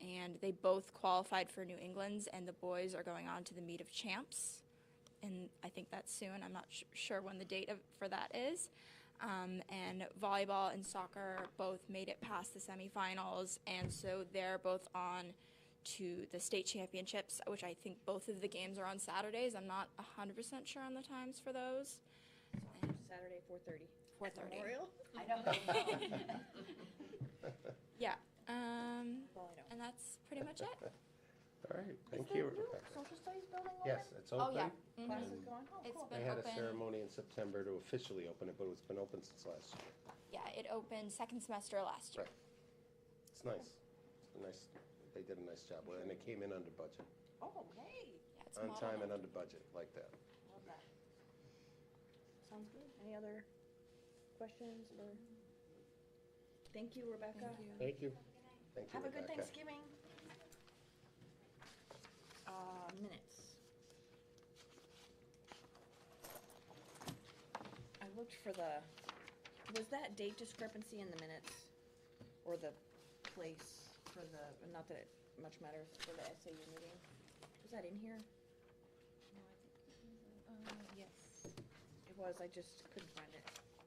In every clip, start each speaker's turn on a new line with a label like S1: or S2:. S1: and they both qualified for New England's, and the boys are going on to the meet of champs, and I think that's soon. I'm not sh- sure when the date of, for that is. Um, and volleyball and soccer both made it past the semifinals, and so they're both on to the state championships, which I think both of the games are on Saturdays. I'm not 100% sure on the times for those.
S2: Saturday, four thirty.
S1: 4:30.
S2: Memorial?
S3: I don't know.
S1: Yeah. Um,
S2: Well, I don't.
S1: and that's pretty much it.
S4: All right, thank you, Rebecca.
S3: Social studies building open?
S4: Yes, it's
S1: Oh, yeah.
S4: open.
S1: Mhm.
S3: Classes
S2: Mm-hmm.
S3: going? Oh,
S1: It's
S3: cool.
S4: They
S1: Been
S4: had a
S1: open.
S4: ceremony in September to officially open it, but it's been open since last year.
S1: Yeah, it opened second semester last year.
S4: Right. It's nice. It's a nice, they did a nice job with it, and it came in under budget,
S3: Oh, hey,
S1: Yeah, it's
S4: on
S1: modeled
S4: time and under budget, like that.
S3: love that.
S2: Sounds good. Any other questions or? Thank you, Rebecca.
S4: Thank you. Thank you,
S3: Have a good
S4: Rebecca.
S3: Thanksgiving. Uh, minutes.
S2: I looked for the, was that date discrepancy in the minutes? Or the place for the, not that it much matters for the SAU meeting? Was that in here?
S3: Yes.
S2: It was, I just couldn't find it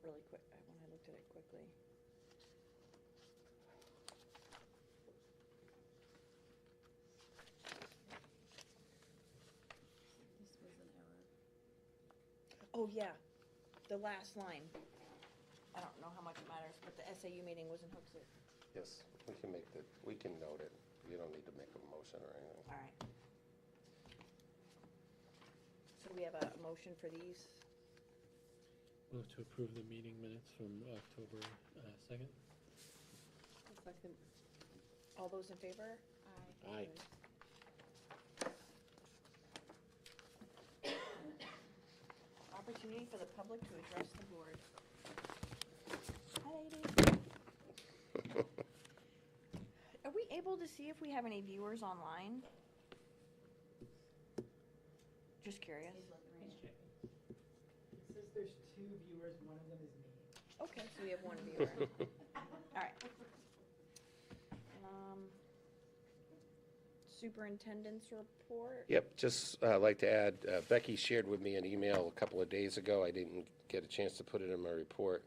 S2: really quick, uh, when I looked at it quickly.
S3: This was an error.
S2: Oh, yeah, the last line. I don't know how much it matters, but the SAU meeting was in Hooksett.
S4: Yes, we can make the, we can note it. You don't need to make a motion or anything.
S2: All right. So do we have a motion for these?
S5: Move to approve the meeting minutes from October uh, second.
S3: Second.
S2: All those in favor?
S5: Aye.
S2: Opportunity for the public to address the board. Hi, ladies. Are we able to see if we have any viewers online? Just curious.
S6: It says there's two viewers, one of them is me.
S2: Okay, so we have one viewer. All right. Um, Superintendent's report.
S4: Yep, just uh, like to add, uh, Becky shared with me an email a couple of days ago. I didn't get a chance to put it in my report.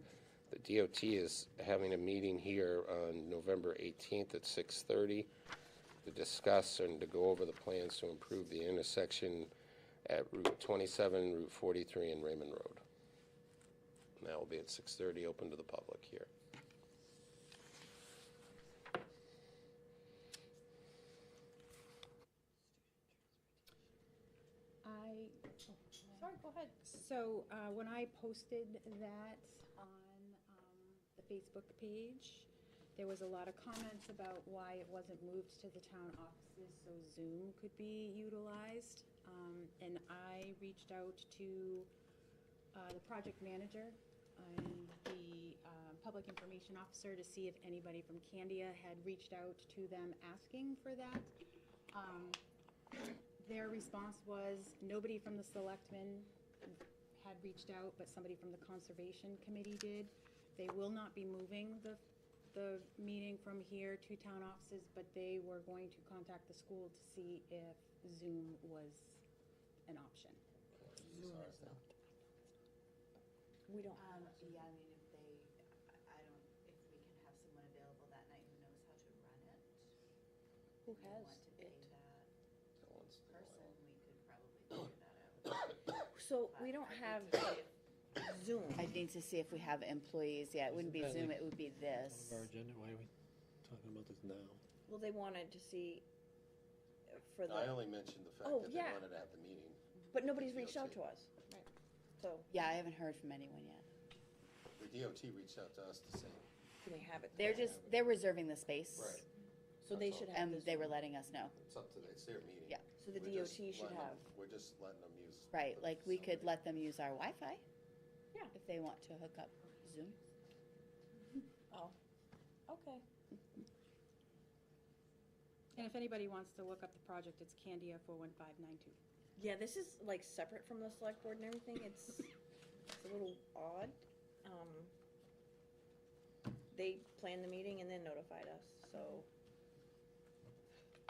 S4: The DOT is having a meeting here on November 18th at 6:30 to discuss and to go over the plans to improve the intersection at Route 27, Route 43, and Raymond Road. And that will be at 6:30, open to the public here.
S7: I,
S3: Sorry, go ahead.
S7: so uh, when I posted that on um, the Facebook page, there was a lot of comments about why it wasn't moved to the town offices so Zoom could be utilized. Um, And I reached out to uh, the project manager and the um, public information officer to see if anybody from Candia had reached out to them asking for that. Um, their response was, nobody from the selectmen had reached out, but somebody from the conservation committee did. They will not be moving the, the meeting from here to town offices, but they were going to contact the school to see if Zoom was an option.
S2: We don't
S8: Um, yeah, I mean, if they, I- I don't, if we can have someone available that night who knows how to run it.
S2: Who
S8: we
S2: has
S8: want to pay
S2: it?
S8: that
S4: Someone's-
S8: Person, we could probably figure that out.
S2: So we don't have Zoom.
S3: I need to see if we have employees, yeah, it wouldn't be
S5: Isn't that
S3: Zoom,
S5: like
S3: it would be this.
S5: Our agenda, why are we talking about this now?
S2: Well, they wanted to see uh, for
S4: I
S2: the,
S4: only mentioned the fact
S2: Oh,
S4: that they
S2: yeah.
S4: wanted to have the meeting.
S2: but nobody's reached out to us. So
S3: Yeah, I haven't heard from anyone yet.
S4: The DOT reached out to us to say,
S2: can they have it?
S3: They're just, they're reserving the space.
S4: right,
S2: So they should have
S3: And
S2: this.
S3: they were letting us know,
S4: It's up to, it's their meeting.
S3: Yeah.
S2: So the
S4: We're just
S2: DOT should
S4: letting them-
S2: have.
S4: We're just letting them use.
S3: right,
S4: the
S3: like we could
S4: facility.
S3: let them use our Wi-Fi.
S2: Yeah.
S3: If they want to hook up Zoom.
S2: Okay.
S7: And if anybody wants to look up the project, it's Candia four one five nine two.
S2: Yeah, this is like separate from the select board and everything. It's, it's a little odd. Um, They planned the meeting and then notified us, so